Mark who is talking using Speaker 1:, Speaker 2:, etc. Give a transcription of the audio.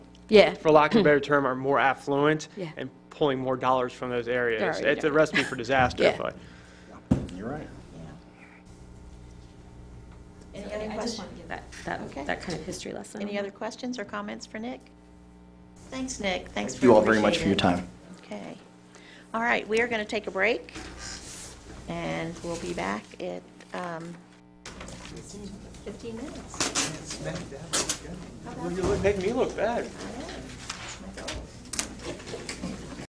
Speaker 1: Yeah.
Speaker 2: for lack of a better term, are more affluent
Speaker 1: Yeah.
Speaker 2: and pulling more dollars from those areas.
Speaker 1: There you
Speaker 2: It's a
Speaker 1: go.
Speaker 2: recipe for disaster,
Speaker 1: Yeah.
Speaker 2: but.
Speaker 3: You're right.
Speaker 4: Any
Speaker 5: So I-
Speaker 4: other
Speaker 5: I just
Speaker 4: questions?
Speaker 5: wanted to give
Speaker 1: That, that,
Speaker 4: Okay.
Speaker 1: that kind of history lesson.
Speaker 4: Any other questions or comments for Nick? Thanks, Nick. Thanks
Speaker 3: Thank
Speaker 4: for
Speaker 3: you all very much
Speaker 4: appreciate
Speaker 3: for your
Speaker 4: it.
Speaker 3: time.
Speaker 4: Okay. All right, we are going to take a break, and we'll be back at um, 15 minutes.
Speaker 2: Make me look bad.
Speaker 4: All right.